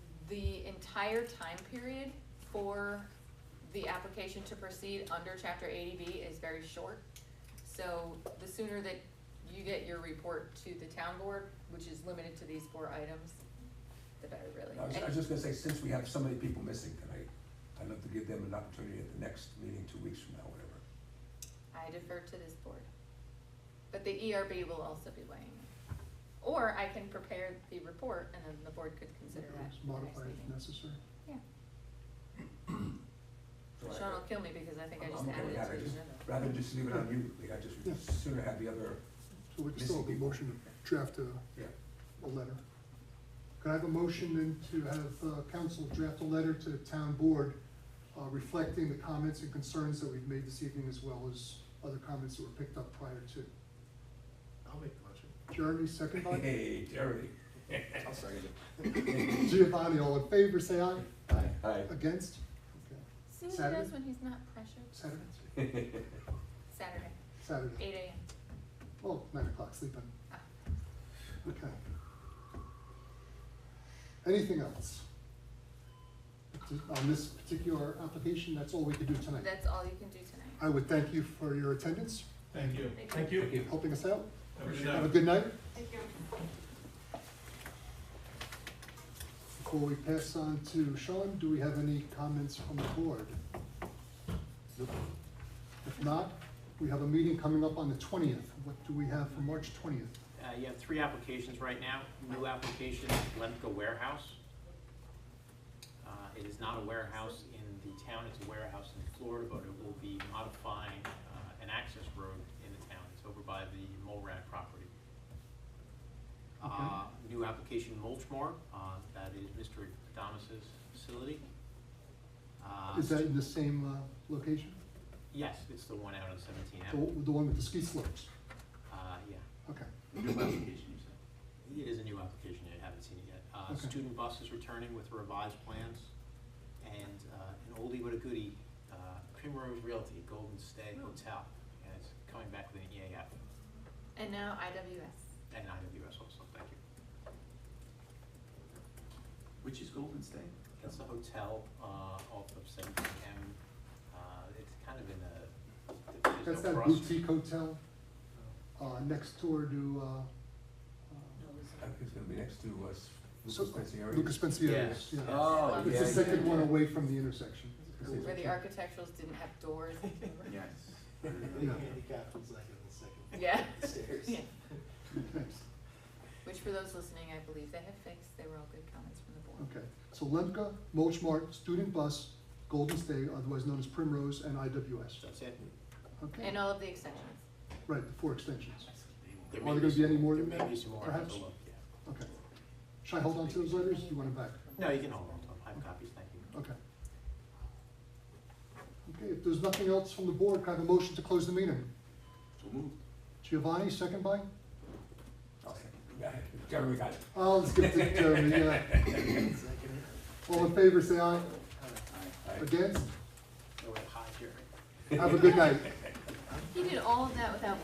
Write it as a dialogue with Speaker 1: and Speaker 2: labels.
Speaker 1: the entire time period for the application to proceed under chapter eighty B is very short. So the sooner that you get your report to the town board, which is limited to these four items, the better really.
Speaker 2: I was, I was just gonna say, since we have so many people missing tonight, I'd love to give them an opportunity at the next meeting, two weeks from now, whatever.
Speaker 1: I defer to this board. But the ERB will also be weighing in. Or I can prepare the report and then the board could consider that at the next
Speaker 3: Modify if
Speaker 1: meeting.
Speaker 3: necessary.
Speaker 1: Yeah.
Speaker 2: So I-
Speaker 1: Sean will kill me because I think I
Speaker 2: I'm-
Speaker 1: just
Speaker 2: I'm okay
Speaker 1: added it
Speaker 2: with that.
Speaker 1: to
Speaker 2: I
Speaker 1: the
Speaker 2: just-
Speaker 1: agenda.
Speaker 2: Rather than just leave it on you, like, I
Speaker 3: Yeah.
Speaker 2: just sooner have the other,
Speaker 3: So we can still have a
Speaker 2: Missing people.
Speaker 3: motion to draft a,
Speaker 2: yeah,
Speaker 3: a letter. Could I have a motion then to have, uh, council draft a letter to the town board, uh, reflecting the comments and concerns that we've made this evening as well as other comments that were picked up prior to.
Speaker 4: I'll make the motion.
Speaker 3: Jeremy, second by?
Speaker 2: hey, Terry.
Speaker 4: I'll second it.
Speaker 3: Giovanni, all in favor, say aye.
Speaker 2: Hi.
Speaker 3: Against? Okay.
Speaker 1: See what he
Speaker 3: Saturday?
Speaker 1: does when he's not pressured?
Speaker 3: Saturday?
Speaker 1: Saturday,
Speaker 3: Saturday.
Speaker 1: eight AM.
Speaker 3: Well, nine o'clock, sleep in.
Speaker 1: Ah.
Speaker 3: Okay. Anything else? On this particular application, that's all we could do tonight.
Speaker 1: That's all you can do tonight.
Speaker 3: I would thank you for your attendance,
Speaker 5: Thank you.
Speaker 1: Thank
Speaker 5: Thank you.
Speaker 3: helping us out.
Speaker 5: Have a good
Speaker 3: Have a
Speaker 5: night.
Speaker 3: good night.
Speaker 1: Thank you.
Speaker 3: Before we pass on to Sean, do we have any comments from the board? If not, we have a meeting coming up on the twentieth. What do we have for March twentieth?
Speaker 6: Uh, you have three applications right now, new application, Lemka Warehouse. Uh, it is not a warehouse in the town, it's a warehouse in Florida, but it will be modifying, uh, an access road in the town, it's over by the Mulrad property. Uh, new application Mulchmore, uh, that is Mr. Adamas's facility. Uh,
Speaker 3: Is that in the same, uh, location?
Speaker 6: Yes, it's the one out on Seventeen
Speaker 3: The,
Speaker 6: Avenue,
Speaker 3: the one with the ski slopes?
Speaker 6: uh, yeah.
Speaker 3: Okay.
Speaker 4: New application, you said?
Speaker 6: It is a new application, I haven't seen it yet. Uh,
Speaker 3: Okay.
Speaker 6: Student bus is returning with revised plans, and uh, an oldie but a goodie, uh, Primrose Realty, Golden Stay
Speaker 3: Oh.
Speaker 6: Hotel, and it's coming back with an EAF
Speaker 1: And now IWS.
Speaker 6: and IWS also, thank you.
Speaker 4: Which is Golden State?
Speaker 6: It's a hotel uh, off of Seventeen M, Uh, it's kind of in a,
Speaker 3: That's
Speaker 6: there's no
Speaker 3: that
Speaker 6: cross.
Speaker 3: boutique hotel, uh, next door to, uh,
Speaker 2: I think it's gonna be next to us,
Speaker 3: So-
Speaker 2: Lucas Pensieri.
Speaker 3: uh, Lucas Pensieri's,
Speaker 6: Yes,
Speaker 3: yeah.
Speaker 2: Oh,
Speaker 1: yeah,
Speaker 3: It's the
Speaker 1: yeah,
Speaker 3: second
Speaker 1: yeah.
Speaker 3: one away from the intersection.
Speaker 2: Yes.
Speaker 1: Where the architecturals didn't have doors.
Speaker 4: Yes.
Speaker 3: Yeah.
Speaker 5: Handicapped is like in the second.
Speaker 1: Yeah.
Speaker 5: Stairs.
Speaker 1: Yeah.
Speaker 3: Thanks.
Speaker 1: Which for those listening, I believe they have fixed. They were all good comments from the board.
Speaker 3: Okay, so Lemka, Mulchmart, Student Bus, Golden State, otherwise known as Primrose, and IWS.
Speaker 6: That's it.
Speaker 3: Okay,
Speaker 1: And uh, all of the extensions.
Speaker 3: right, the four extensions.
Speaker 6: There
Speaker 3: Are
Speaker 6: may
Speaker 3: there gonna be any
Speaker 6: some-
Speaker 3: more
Speaker 6: There
Speaker 3: than
Speaker 6: may
Speaker 3: that,
Speaker 6: be some more, I have
Speaker 3: perhaps?
Speaker 6: to look, yeah.
Speaker 3: Okay. Should I hold on to those letters? Do you want them
Speaker 6: No, you can hold on, to them. I have copies, thank you.
Speaker 3: back? Okay. Okay, if there's nothing else from the board, can I have a motion to close the meeting?
Speaker 4: So moved.
Speaker 3: Giovanni, second by?
Speaker 2: Okay. Yeah, Jeremy got it.
Speaker 3: Oh, let's give it to Jeremy, yeah. All in favor, say aye.
Speaker 2: All right.
Speaker 3: Against?
Speaker 6: No, wait, hi, Jerry.
Speaker 3: Have a good night.
Speaker 1: He did all of that without